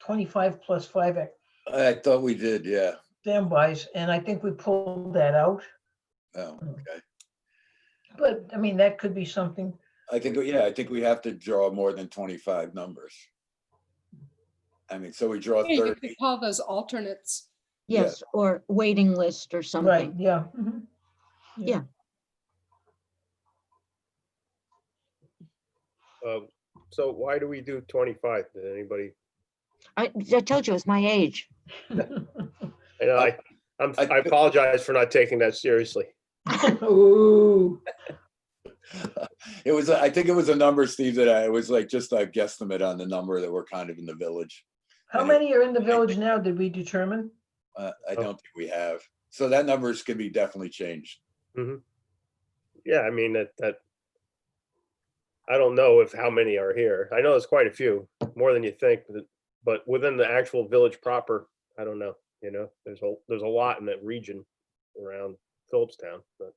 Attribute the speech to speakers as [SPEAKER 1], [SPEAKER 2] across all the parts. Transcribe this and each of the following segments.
[SPEAKER 1] twenty-five plus five at
[SPEAKER 2] I thought we did, yeah.
[SPEAKER 1] standbys, and I think we pulled that out.
[SPEAKER 2] Oh, okay.
[SPEAKER 1] But, I mean, that could be something,
[SPEAKER 2] I think, yeah, I think we have to draw more than twenty-five numbers. I mean, so we draw
[SPEAKER 3] Yeah, You
[SPEAKER 2] thirty,
[SPEAKER 3] could call those alternates.
[SPEAKER 2] Yeah.
[SPEAKER 4] Yes, or waiting list or
[SPEAKER 1] right,
[SPEAKER 4] something.
[SPEAKER 1] yeah. mhm.
[SPEAKER 5] Um, So why do we do 25? Did anybody,
[SPEAKER 4] I, I told you, it's my age.
[SPEAKER 5] and I, I'm,
[SPEAKER 2] I-
[SPEAKER 5] I apologize for not taking that seriously.
[SPEAKER 1] Ooh,
[SPEAKER 2] it was, I think it was a number, Steve, that I, it was like just a guesstimate on the number that we're kind of in the village.
[SPEAKER 1] how many are in the village now, did we determine?
[SPEAKER 2] Uh, I
[SPEAKER 3] Oh.
[SPEAKER 2] don't think we have. So that numbers can be definitely changed.
[SPEAKER 5] Yeah, I mean, that, that, I don't know if how many are here. I know there's quite a few, more than you think, but- but within the actual village proper, I don't know, you know, there's a, there's a lot in that region around Phillipstown, but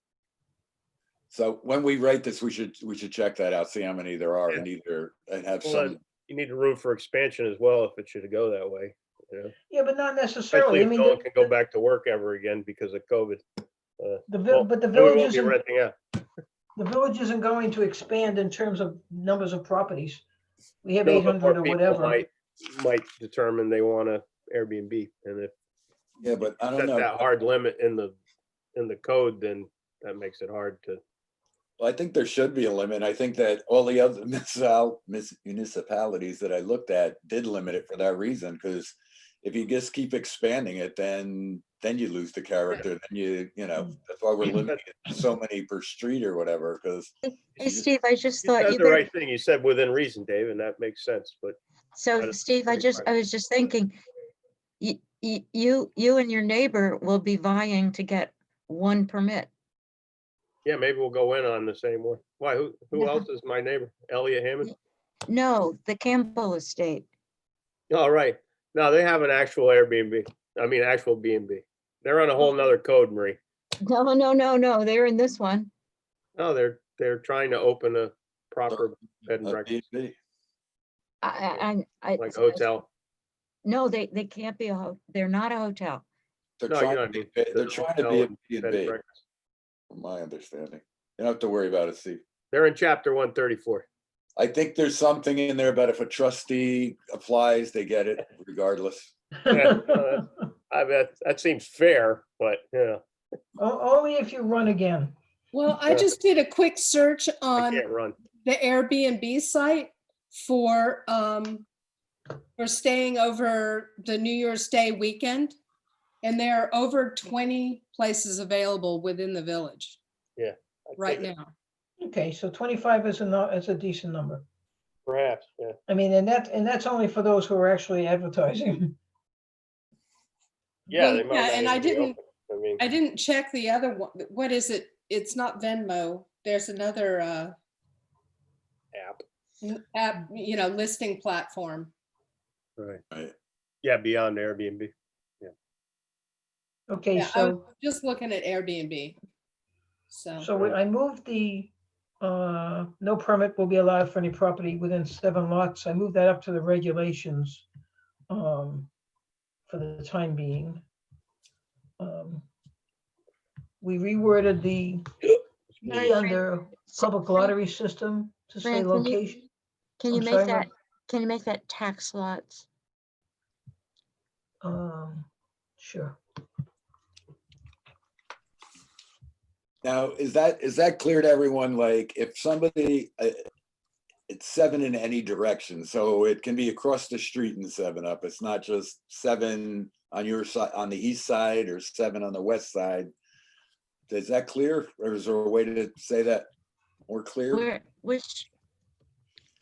[SPEAKER 2] So when we write this, we should, we should check that out, see how many there are and either, and have
[SPEAKER 5] Well,
[SPEAKER 2] some,
[SPEAKER 5] you need room for expansion as well if it should go that way, you know?
[SPEAKER 1] Yeah, but not
[SPEAKER 5] Especially
[SPEAKER 1] necessarily, I
[SPEAKER 5] if
[SPEAKER 1] mean,
[SPEAKER 5] no one
[SPEAKER 1] the-
[SPEAKER 5] can go
[SPEAKER 1] the,
[SPEAKER 5] back to work ever again because of COVID.
[SPEAKER 1] the vil-
[SPEAKER 5] well,
[SPEAKER 1] but the
[SPEAKER 5] Then we
[SPEAKER 1] village
[SPEAKER 5] won't be
[SPEAKER 1] isn't,
[SPEAKER 5] renting out.
[SPEAKER 1] the village isn't going to expand in terms of numbers of properties. We have
[SPEAKER 5] No,
[SPEAKER 1] eight
[SPEAKER 5] but more
[SPEAKER 1] hundred or
[SPEAKER 5] people
[SPEAKER 1] whatever.
[SPEAKER 5] might- Might determine they want to Airbnb, and if
[SPEAKER 2] yeah, but I don't
[SPEAKER 5] that's
[SPEAKER 2] know.
[SPEAKER 5] that hard limit in the, in the code, then that makes it hard to.
[SPEAKER 2] Well, I think there should be a limit. I think that all the other municipal- mis- municipalities that I looked at did limit it for that reason, because if you just keep expanding it, then, then you lose the character, then you, you know, that's why we're limiting it to so many per street or whatever, because
[SPEAKER 4] Hey, Steve, I just
[SPEAKER 5] You
[SPEAKER 4] thought
[SPEAKER 5] said
[SPEAKER 4] you
[SPEAKER 5] the
[SPEAKER 4] better,
[SPEAKER 5] right thing, you said within reason, Dave, and that makes sense, but
[SPEAKER 4] so
[SPEAKER 5] is
[SPEAKER 4] Steve, I
[SPEAKER 5] great
[SPEAKER 4] just, I
[SPEAKER 5] question.
[SPEAKER 4] was just thinking, you, you, you and your neighbor will be vying to get one permit.
[SPEAKER 5] yeah, maybe we'll go in on the same one. Why, who, who
[SPEAKER 4] No.
[SPEAKER 5] else is my neighbor? Elliot Hammond?
[SPEAKER 4] No, the Campbell Estate.
[SPEAKER 5] All right, no, they have an actual Airbnb, I mean, actual B and B. They're on a whole nother code, Marie.
[SPEAKER 4] No, no, no, no, they're in this one.
[SPEAKER 5] No, they're, they're trying to open a proper bed and
[SPEAKER 2] of
[SPEAKER 5] breakfast,
[SPEAKER 2] B&B.
[SPEAKER 4] I, I, I. I-
[SPEAKER 5] like a hotel.
[SPEAKER 4] No, they, they can't be a, ho- they're not a hotel.
[SPEAKER 2] they're
[SPEAKER 5] No, you know
[SPEAKER 2] trying to
[SPEAKER 5] what I
[SPEAKER 2] be,
[SPEAKER 5] mean.
[SPEAKER 2] a- they're
[SPEAKER 5] The
[SPEAKER 2] trying to
[SPEAKER 5] hotel
[SPEAKER 2] be a
[SPEAKER 5] and
[SPEAKER 2] B and
[SPEAKER 5] bed and
[SPEAKER 2] B,
[SPEAKER 5] breakfast.
[SPEAKER 2] from my understanding. You don't have to worry about it, Steve.
[SPEAKER 5] They're in chapter one thirty-four.
[SPEAKER 2] I think there's something in there about if a trustee applies, they get it regardless.
[SPEAKER 5] Yeah. uh, I bet that seems fair, but yeah,
[SPEAKER 1] O- Only if you run again.
[SPEAKER 3] Well, I
[SPEAKER 5] Sure.
[SPEAKER 3] just did a quick search
[SPEAKER 5] I
[SPEAKER 3] on
[SPEAKER 5] can't run.
[SPEAKER 3] the Airbnb site for, um, for staying over the New Year's Day weekend. And there are over 20 places available within the village
[SPEAKER 5] I
[SPEAKER 3] right
[SPEAKER 5] think
[SPEAKER 3] now.
[SPEAKER 1] Okay, so twenty-five is a, no- is a decent number.
[SPEAKER 5] Perhaps, yeah.
[SPEAKER 1] I mean, and that, and that's only for those who are actually advertising.
[SPEAKER 5] Yeah.
[SPEAKER 3] Well,
[SPEAKER 5] they might
[SPEAKER 3] yeah,
[SPEAKER 5] not
[SPEAKER 3] and
[SPEAKER 5] even
[SPEAKER 3] I
[SPEAKER 5] be
[SPEAKER 3] didn't-
[SPEAKER 5] open. I mean,
[SPEAKER 3] I didn't check the other one. What is it? It's not Venmo. There's another, uh,
[SPEAKER 5] app.
[SPEAKER 3] n- app, you know, listing platform.
[SPEAKER 5] Right.
[SPEAKER 2] Right.
[SPEAKER 5] Yeah, beyond Airbnb.
[SPEAKER 1] Okay,
[SPEAKER 3] Yeah, I was
[SPEAKER 1] so,
[SPEAKER 3] just looking at Airbnb. So,
[SPEAKER 1] so we- I moved the, uh, no permit will be allowed for any property within seven lots. I moved that up to the regulations um, for the time being. Um, We reworded the
[SPEAKER 4] Excuse
[SPEAKER 1] E
[SPEAKER 4] me.
[SPEAKER 1] under public lottery system to say
[SPEAKER 4] Fran, can you-
[SPEAKER 1] location.
[SPEAKER 4] Can you
[SPEAKER 1] I'm
[SPEAKER 4] make
[SPEAKER 1] sorry, Mar-
[SPEAKER 4] that, can you make that tax lots?
[SPEAKER 1] Um, Sure.
[SPEAKER 2] Now, is that, is that clear to everyone? Like, if somebody, uh, it's seven in any direction, so it can be across the street and seven up. It's not just seven on your side, on the east side or seven on the west side. Is that clear? Or is there a way to say that more clear?
[SPEAKER 4] Where, which,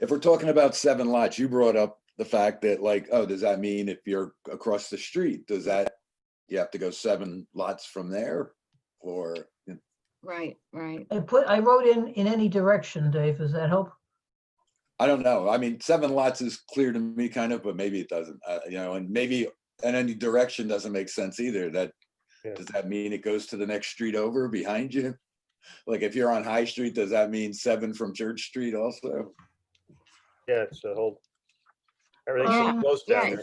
[SPEAKER 2] If we're talking about seven lots, you brought up the fact that like, oh, does that mean if you're across the street, does that, you have to go seven lots from there? Or,
[SPEAKER 4] right, right.
[SPEAKER 1] I put, I wrote in, in any direction, Dave, does that help?
[SPEAKER 2] I don't know. I mean, seven lots is clear to me kind of, but maybe it doesn't, uh, you know, and maybe in any direction doesn't make sense either. That,
[SPEAKER 5] Yeah.
[SPEAKER 2] does that mean it goes to the next street over behind you? Like if you're on High Street, does that mean seven from Church Street also?
[SPEAKER 5] Yeah, it's a whole. Everything's so
[SPEAKER 4] Um,
[SPEAKER 5] close down
[SPEAKER 3] Oh,
[SPEAKER 4] yeah,
[SPEAKER 5] there.